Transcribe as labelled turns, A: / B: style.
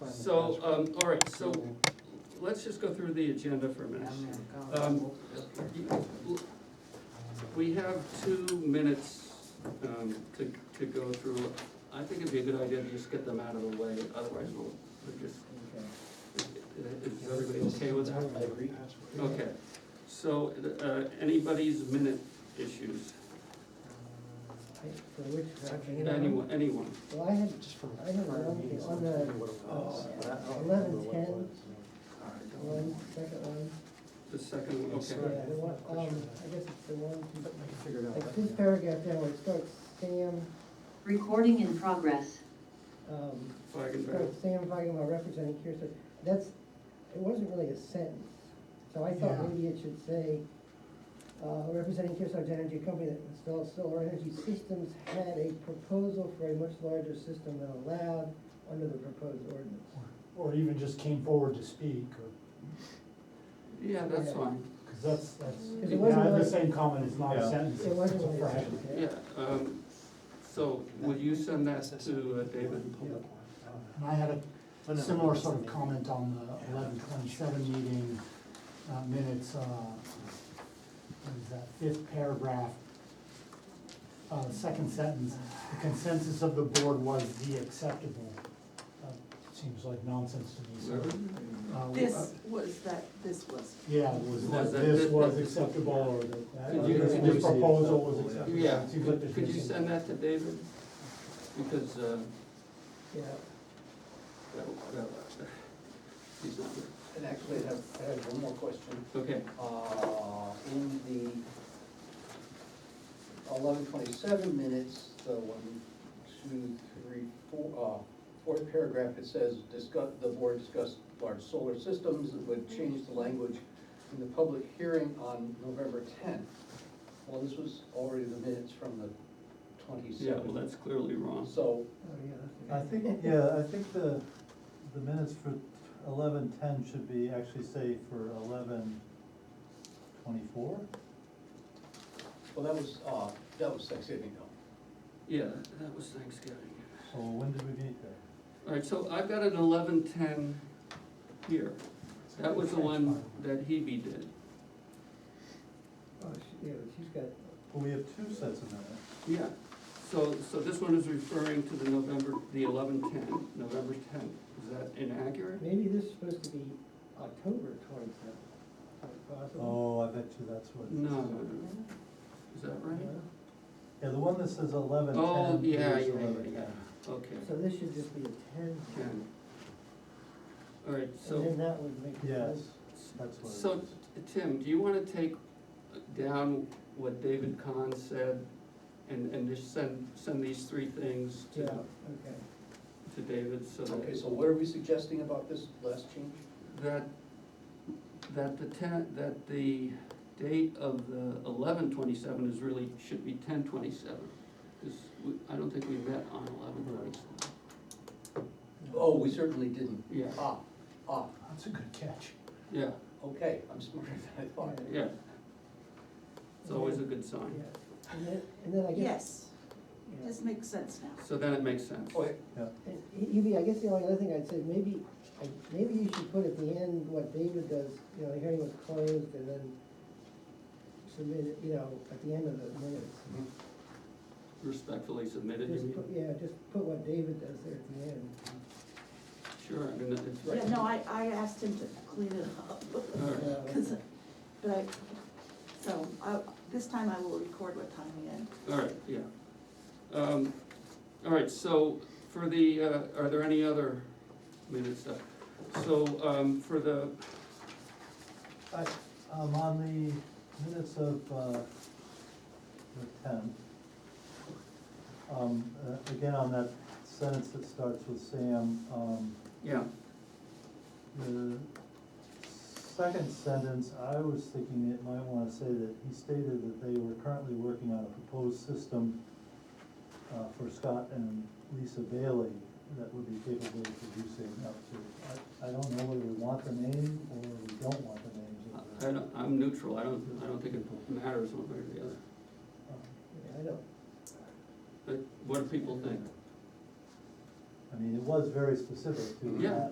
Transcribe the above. A: of the
B: So,
A: best.
B: um, all right, so let's just go through the agenda for a
A: I'm
B: minute.
A: gonna go.
B: Um, We have two minutes, um, to, to go through. I think it'd be a good idea to just get them out of the way, otherwise we'll, we'll just,
A: Okay.
B: is everybody okay with that?
A: I agree.
B: Okay, so, uh, anybody's minute issues,
C: For which, you know,
B: anyone, anyone?
C: Well, I had,
D: Just from
C: I had
D: prior
C: one
D: meetings.
C: thing on the,
D: uh,
C: eleven ten, one, second one,
B: The second, one,
D: Yes,
C: yeah,
B: okay.
D: sir.
C: the one, um, I guess it's the one,
D: Figured out.
C: like this paragraph down where it starts Sam,
E: Recording in progress.
C: um,
B: Feigenbaum.
C: starts Sam talking about representing Kearsarge, that's, it wasn't really a sentence. So I
D: Yeah.
C: thought maybe it should say, uh, representing Kearsarge Energy Company that installs solar energy systems had a proposal for a much larger system than allowed under the proposed ordinance.
D: Or even just came forward to speak, or,
B: Yeah, that's fine,
D: because that's, that's, yeah,
C: It wasn't
D: I had the
C: like-
D: same comment, it's not a
F: Yeah.
D: sentence,
C: It
D: it's
C: wasn't
D: it's a
C: really a
D: frame.
C: sentence, yeah.
B: yeah, um, so will you send that to uh, David?
D: And I had a similar sort of comment on the eleven twenty-seven meeting uh, minutes, uh, what is that fifth paragraph? Uh, second sentence, the consensus of the board was the acceptable. Uh, Seems like nonsense to me, so.
B: Whoever?
D: uh, we-
G: This was that, this was.
D: Yeah, was
B: Was
D: that
B: that-
D: this
B: that-
D: was
B: that-
D: acceptable, or that,
B: Could you-
D: that
B: could you-
D: this proposal was acceptable?
B: Yeah,
D: Seems like there's
B: could you
D: missing-
B: send that to David? Because, uh,
C: Yeah.
B: that- that- he's not here.
A: And actually, I have, I have one more question.
B: Okay,
A: Uh, in the eleven twenty-seven minutes, the one, two, three, four, uh, fourth paragraph, it says, discuss, the board discussed large solar systems, it would change the language in the public hearing on November tenth. Well, this was already the minutes from the
B: yeah, well,
A: twenty-seventh,
B: that's clearly wrong.
A: so,
C: Oh, yeah, that's.
F: I think, yeah, I think the, the minutes for eleven ten should be, actually say for eleven twenty-four?
A: well, that was, uh, that was Thanksgiving though.
B: Yeah, that was Thanksgiving.
F: So when did we meet there?
B: All right, so I've got an eleven-ten here. That was the one that Hebe did.
C: Oh, she, yeah, but she's got,
F: Well, we have two sets of minutes.
B: Yeah, so, so this one is referring to the November, the eleven-ten, November tenth. Is that inaccurate?
C: maybe this is supposed to be October twenty-seventh, possible.
F: Oh, I bet you that's what.
B: No, no, no. Is that right?
F: Yeah, the one that says eleven ten.
B: Oh, yeah, yeah, yeah, Okay,
C: So this should just be a ten,
B: ten. All right,
C: and
B: so,
C: then that would make.
F: Yes, that's what it is.
B: so, Tim, do you wanna take down what David Kahn said and, and just send, send these three things to,
C: Yeah, okay.
B: to David so
A: Okay,
B: that,
A: so what are we suggesting about this last change?
B: that, that the ten, that the date of the eleven twenty-seven is really, should be ten twenty-seven. Cause we, I don't think we met on eleven twenty-seven.
A: Oh, we certainly didn't.
B: Yeah,
A: Ah, ah,
D: That's a good catch.
B: yeah,
A: okay, I'm smarter than I thought.
B: yeah. It's always a good sign.
C: Yeah. And then, and then I guess.
G: Yes,
C: yeah.
G: this makes sense now.
B: So then it makes sense.
A: Okay,
C: And Hebe, I guess the only other thing I'd say, maybe, I- maybe you should put at the end what David does, you know, the hearing was closed and then submit it, you know, at the end of the minutes.
B: Respectfully submitted, you
C: Just
B: mean?
C: put, yeah, just put what David does there at the end.
B: Sure, I mean, it's
G: Yeah, no, I, I asked him to clean it up.
B: All right.
C: Uh,
G: 'Cause- But I, so I, this time I will record what time we end.
B: All right, yeah. Um, All right, so for the, uh, are there any other minutes up? So um, for the,
F: I, um, on the minutes of, uh, the tenth, um, uh, again, on that sentence that starts with Sam, um,
B: yeah,
F: the second sentence, I was thinking it might wanna say that he stated that they were currently working on a proposed system uh, for Scott and Lisa Bailey that would be capable of producing up to, I, I don't know whether we want the name or we don't want the names of the.
B: I- I don't, I'm neutral, I don't, I don't think it matters one way or the other.
F: Um,
C: yeah, I don't,
B: But what do people think?
F: I mean, it was very specific to
B: Yeah.
F: that